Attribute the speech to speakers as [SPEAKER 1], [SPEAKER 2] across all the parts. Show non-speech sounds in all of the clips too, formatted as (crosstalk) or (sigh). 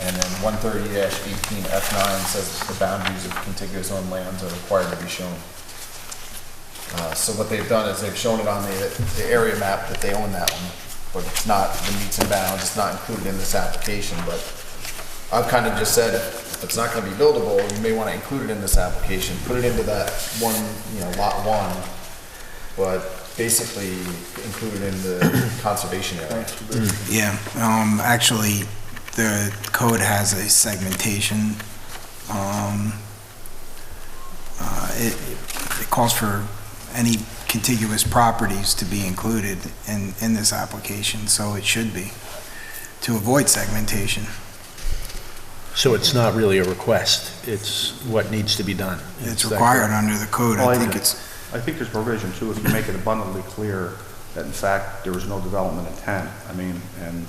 [SPEAKER 1] And then one thirty eighteen F nine says the boundaries of contiguous owned lands are required to be shown. Uh, so what they've done is they've shown it on the, the area map that they own that one, but it's not the meets and bounds, it's not included in this application, but I've kind of just said, if it's not gonna be buildable, you may wanna include it in this application, put it into that one, you know, lot one, but basically include it in the (coughs) conservation area.
[SPEAKER 2] Yeah, um, actually, the code has a segmentation. Um, uh, it, it calls for any contiguous properties to be included in, in this application, so it should be, to avoid segmentation.
[SPEAKER 3] So it's not really a request, it's what needs to be done.
[SPEAKER 2] It's
[SPEAKER 3] Is that
[SPEAKER 2] required
[SPEAKER 3] correct?
[SPEAKER 2] under the code,
[SPEAKER 3] Oh,
[SPEAKER 4] Well,
[SPEAKER 2] I
[SPEAKER 4] I
[SPEAKER 2] think
[SPEAKER 4] know.
[SPEAKER 2] it's,
[SPEAKER 4] I think there's provision too, if you make it abundantly clear that in fact there was no development intent, I mean, and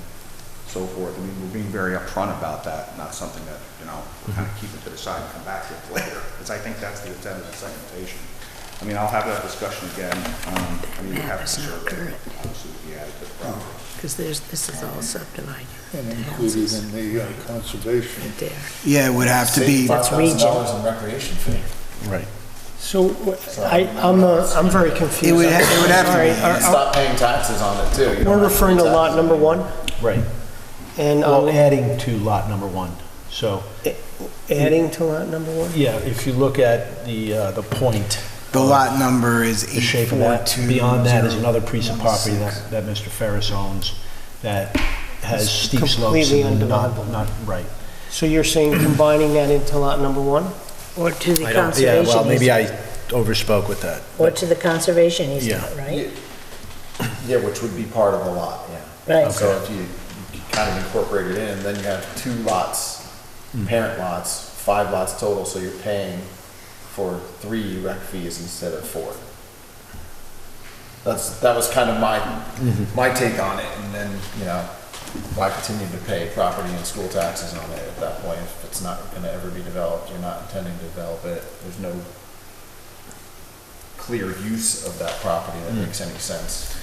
[SPEAKER 4] so forth. I mean, we're being very upfront about that, not something that, you know, we're kind of keeping to the side and come back to it later, because I think that's the intent of the segmentation. I mean, I'll have that discussion again, um, I mean, we have a survey, obviously, would be added um, to the property.
[SPEAKER 5] Because there's, this is all subdivided,
[SPEAKER 6] and
[SPEAKER 5] the
[SPEAKER 6] included
[SPEAKER 5] houses
[SPEAKER 6] in the uh, conservation.
[SPEAKER 5] right there.
[SPEAKER 2] yeah, it would have to be,
[SPEAKER 1] Five thousand dollars
[SPEAKER 5] regional.
[SPEAKER 1] in recreation fee.
[SPEAKER 3] Right.
[SPEAKER 7] So wh- I, I'm, uh, I'm very confused.
[SPEAKER 2] It would ha- it would have to
[SPEAKER 7] Sorry,
[SPEAKER 2] be-
[SPEAKER 7] are-
[SPEAKER 1] And stop paying taxes on it too. You
[SPEAKER 7] We're
[SPEAKER 1] don't have to
[SPEAKER 7] referring to
[SPEAKER 1] pay
[SPEAKER 7] lot
[SPEAKER 1] taxes.
[SPEAKER 7] number one,
[SPEAKER 3] Right.
[SPEAKER 7] and um,
[SPEAKER 3] Well,
[SPEAKER 7] I'm
[SPEAKER 3] adding to lot number one. So,
[SPEAKER 7] adding to lot number one?
[SPEAKER 3] yeah, if you look at the, uh, the point,
[SPEAKER 2] the lot number is
[SPEAKER 3] the shape of that,
[SPEAKER 2] 842.
[SPEAKER 3] beyond that is another piece of property that, that Mr. Ferris owns that has steep slopes
[SPEAKER 7] completely
[SPEAKER 3] and not,
[SPEAKER 7] undevelopable.
[SPEAKER 3] not, right.
[SPEAKER 7] So you're saying combining that into lot number one?
[SPEAKER 5] Or to the
[SPEAKER 3] I don't- Yeah, well,
[SPEAKER 5] conservation
[SPEAKER 3] maybe I
[SPEAKER 5] easement.
[SPEAKER 3] overspoke with that.
[SPEAKER 5] Or to the conservation easement,
[SPEAKER 3] Yeah.
[SPEAKER 5] right?
[SPEAKER 1] Yeah, which would be part of the lot, yeah.
[SPEAKER 5] Right.
[SPEAKER 1] So if you you kind of incorporate it in, then you have two lots, parent lots, five lots total, so you're paying for three rec fees instead of four. That's, that was kind of my, my take on it, and then, you know, I continued to pay property and school taxes on it at that point. If it's not gonna ever be developed, you're not intending to develop it, there's no clear use of that property that makes any sense.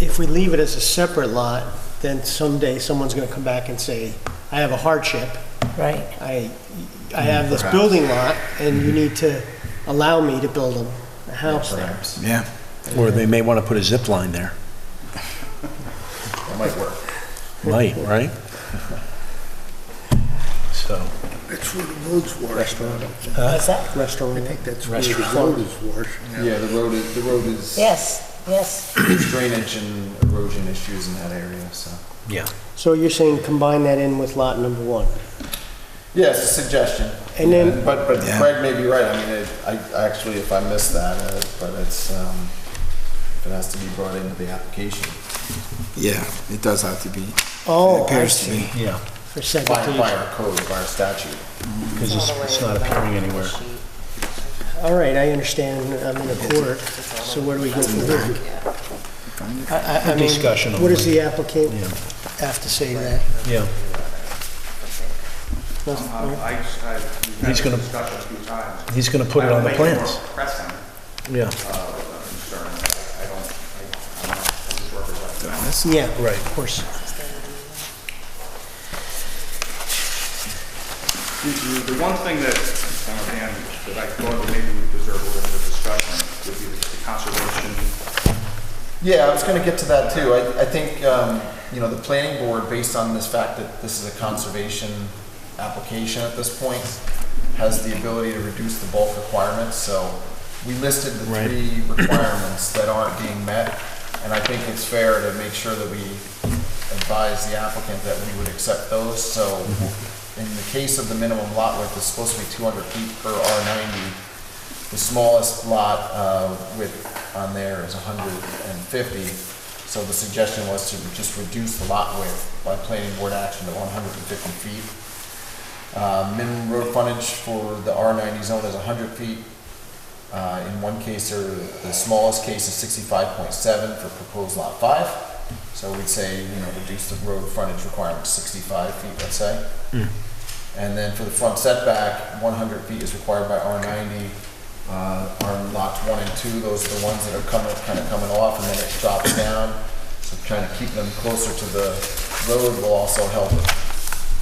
[SPEAKER 7] If we leave it as a separate lot, then someday someone's gonna come back and say, I have a hardship,
[SPEAKER 5] Right.
[SPEAKER 7] I, I have this building lot, and you need to allow me to build a- a house there.
[SPEAKER 1] Perhaps.
[SPEAKER 2] Yeah,
[SPEAKER 3] Or they may want to put a zip line there.
[SPEAKER 1] It might work.
[SPEAKER 3] Might, right? (laughs) So,
[SPEAKER 6] That's where the roads wash. I
[SPEAKER 5] What's that?
[SPEAKER 7] Restaurant.
[SPEAKER 6] think that's where the road is washed.
[SPEAKER 1] Yeah, the road is, the road is
[SPEAKER 5] Yes, yes.
[SPEAKER 1] drainage and erosion issues in that area, so.
[SPEAKER 3] yeah.
[SPEAKER 7] So you're saying combine that in with lot number one?
[SPEAKER 1] Yeah, it's a suggestion.
[SPEAKER 7] And then-
[SPEAKER 1] But, but
[SPEAKER 2] Yeah.
[SPEAKER 1] Craig may be right, I mean, it- I, I actually, if I missed that, uh, but it's, um, it has to be brought into the application.
[SPEAKER 2] yeah, it does have to be, it
[SPEAKER 7] Oh, I
[SPEAKER 2] appears to
[SPEAKER 7] see,
[SPEAKER 2] be.
[SPEAKER 3] Yeah,
[SPEAKER 1] By,
[SPEAKER 7] for
[SPEAKER 1] by
[SPEAKER 7] segmentation.
[SPEAKER 1] our code, by our statute.
[SPEAKER 3] because it's, it's not appearing anywhere.
[SPEAKER 7] All right, I understand, I'm in accord, so where do we go from here? I- I- I mean,
[SPEAKER 3] Discussion
[SPEAKER 7] What does
[SPEAKER 3] only.
[SPEAKER 7] the applicant
[SPEAKER 3] Yeah.
[SPEAKER 7] have to say to that?
[SPEAKER 3] Yeah.
[SPEAKER 7] Nothing?
[SPEAKER 4] Um, I, I, we've
[SPEAKER 3] Oh,
[SPEAKER 4] had
[SPEAKER 3] He's
[SPEAKER 4] this
[SPEAKER 3] gonna-
[SPEAKER 4] discussion a few times.
[SPEAKER 3] He's gonna put it
[SPEAKER 4] I don't
[SPEAKER 3] on the
[SPEAKER 4] think it's
[SPEAKER 3] plans.
[SPEAKER 4] more Pressing,
[SPEAKER 3] Yeah,
[SPEAKER 4] uh, concern, I I don't, I, I'm not, I just represent.
[SPEAKER 7] Yeah,
[SPEAKER 3] Right.
[SPEAKER 7] of course.
[SPEAKER 4] The- The the one thing that, uh, Dan, that I thought that maybe we deserve a little bit of discussion would be the conservation.
[SPEAKER 1] Yeah, I was gonna get to that too. I, I think, um, you know, the planning board, based on this fact that this is a conservation application at this point, has the ability to reduce the bulk requirements, so we listed the
[SPEAKER 3] Right.
[SPEAKER 1] three requirements that aren't being met, and I think it's fair to make sure that we advise the applicant that we would accept those, so in the case of the minimum lot width, it's supposed to be two hundred feet per R ninety, the smallest lot uh, width on there is 150, so the suggestion was to just reduce the lot width by planning board action to 150 feet. Uh, Minimum road frontage for the R90 zone is 100 feet. Uh, In one case, or the smallest case is 65.7 for proposed lot five. So we'd say, you know, reduce the road frontage requirement to 65 feet, let's say. And then for the front setback, one hundred feet is required by R ninety. Uh, on lots one and two, those are the ones that are coming, kind of coming off, and then it drops down. So trying to keep them closer to the road will also help